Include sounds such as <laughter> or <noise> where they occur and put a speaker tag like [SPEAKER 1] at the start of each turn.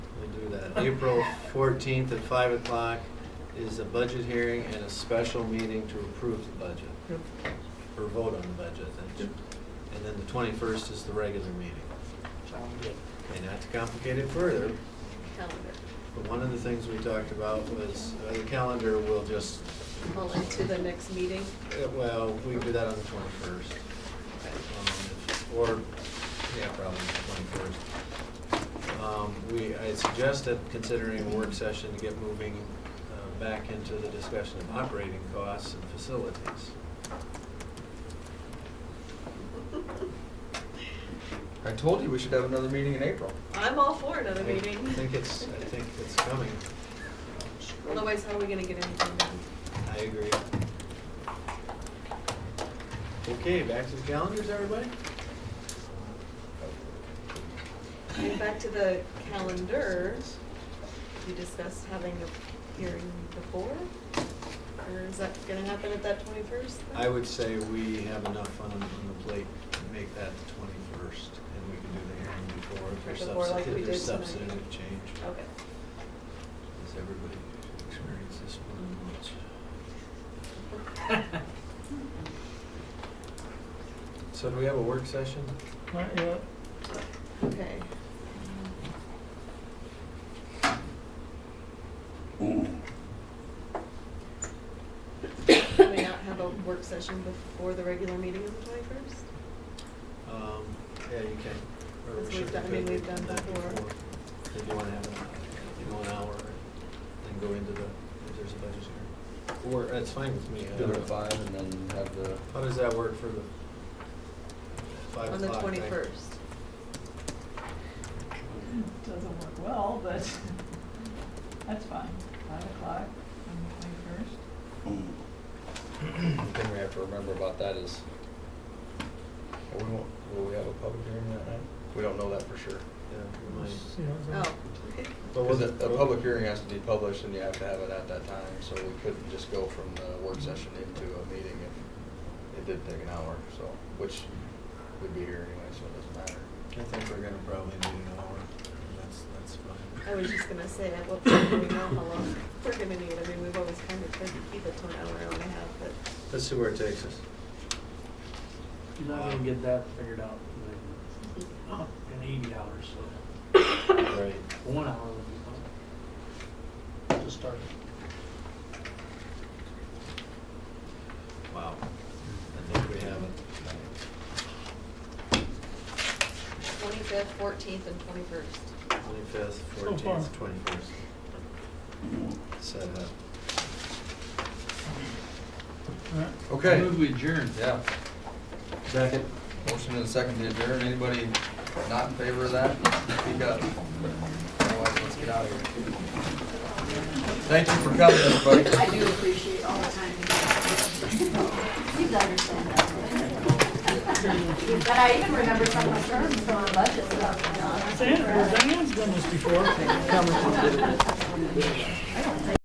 [SPEAKER 1] April fourteenth at five o'clock is a budget hearing and a special meeting to approve the budget,
[SPEAKER 2] Yep.
[SPEAKER 1] or vote on the budget, I think. And then the twenty-first is the regular meeting.
[SPEAKER 2] Sound good.
[SPEAKER 1] And not to complicate it further,
[SPEAKER 3] calendar,
[SPEAKER 1] but one of the things we talked about was, uh, the calendar will just,
[SPEAKER 3] pull into the next meeting. <laughs>
[SPEAKER 1] uh, well, we can do that on the twenty-first. Um, Or, yeah, probably the twenty-first. Um, we, I suggested considering a work session to get moving, uh, back into the discussion of operating costs and facilities.
[SPEAKER 2] I told you we should have another meeting in April.
[SPEAKER 3] I'm all for another meeting.
[SPEAKER 1] I think it's, I think it's coming,
[SPEAKER 3] Otherwise, how are we gonna get anything done?
[SPEAKER 1] I agree. Okay, back to the calendars, everybody?
[SPEAKER 3] Going Back to the calendar, you discussed having a hearing before? Or is that gonna happen at that twenty-first?
[SPEAKER 1] I would say we have enough on, on the plate to make that the twenty-first, and we can do the hearing before if there's
[SPEAKER 3] Before, like
[SPEAKER 1] substantive,
[SPEAKER 3] we
[SPEAKER 1] if there's
[SPEAKER 3] did tonight.
[SPEAKER 1] substantive change.
[SPEAKER 3] Okay.
[SPEAKER 1] Does everybody experience this one once? So do we have a work session?
[SPEAKER 4] Not yet.
[SPEAKER 3] Okay. Do we not have a work session before the regular meeting on the twenty-first?
[SPEAKER 1] Um, yeah, you can. or we
[SPEAKER 3] Because we've
[SPEAKER 1] should-
[SPEAKER 3] done- I
[SPEAKER 1] we
[SPEAKER 3] mean,
[SPEAKER 1] could
[SPEAKER 3] we've
[SPEAKER 1] do
[SPEAKER 3] done
[SPEAKER 1] that
[SPEAKER 3] before.
[SPEAKER 1] If you wanna have, a- you know, an hour, then go into the, if there's a budget here. Or, that's fine with me. I
[SPEAKER 2] Do it
[SPEAKER 1] don't-
[SPEAKER 2] at five and then have the,
[SPEAKER 1] How does that work for the five o'clock?
[SPEAKER 3] On the
[SPEAKER 1] thing?
[SPEAKER 3] twenty-first?
[SPEAKER 5] <laughs> Doesn't work well, but <laughs> that's fine. Five o'clock on the twenty-first.
[SPEAKER 2] the thing we have to remember about that is, well, we won't, will we have a public hearing that night? We don't know that for sure.
[SPEAKER 1] Yeah, we might.
[SPEAKER 4] See
[SPEAKER 3] Oh,
[SPEAKER 4] how it goes.
[SPEAKER 1] But
[SPEAKER 2] Because
[SPEAKER 1] was
[SPEAKER 2] a,
[SPEAKER 1] it
[SPEAKER 2] a public hearing has to be published and you have to have it at that time, so we couldn't just go from the work session into a meeting if it did take an hour, so, which would be here anyway, so it doesn't matter.
[SPEAKER 1] I think we're gonna probably need an hour, that's, that's fine.
[SPEAKER 3] I was just gonna say, at what point do we know how long we're gonna need? I mean, we've always kind of tried to keep it to an hour, hour and a half, but.
[SPEAKER 1] Let's see where it takes us.
[SPEAKER 6] You're not gonna get that figured out in- in eighty hours, so
[SPEAKER 1] Right.
[SPEAKER 6] one hour would be fine. Just start.
[SPEAKER 1] Wow. I think we have it.
[SPEAKER 3] Twenty-fifth, fourteenth, and twenty-first.
[SPEAKER 1] Twenty-fifth,
[SPEAKER 4] So far.
[SPEAKER 1] fourteenth, twenty-first. Set up.
[SPEAKER 4] All right.
[SPEAKER 2] Okay.
[SPEAKER 4] Move we adjourn.
[SPEAKER 2] Yeah,
[SPEAKER 1] Second.
[SPEAKER 2] motion and a second to adjourn. Anybody not in favor of that? Speak up. Otherwise, let's get out of here. Thank you for coming, everybody.
[SPEAKER 7] I do appreciate all the time you guys. You guys understand that. <laughs> But I even remember some of my terms, some of the budget stuff, you know.
[SPEAKER 4] Sam, Dan's done this before.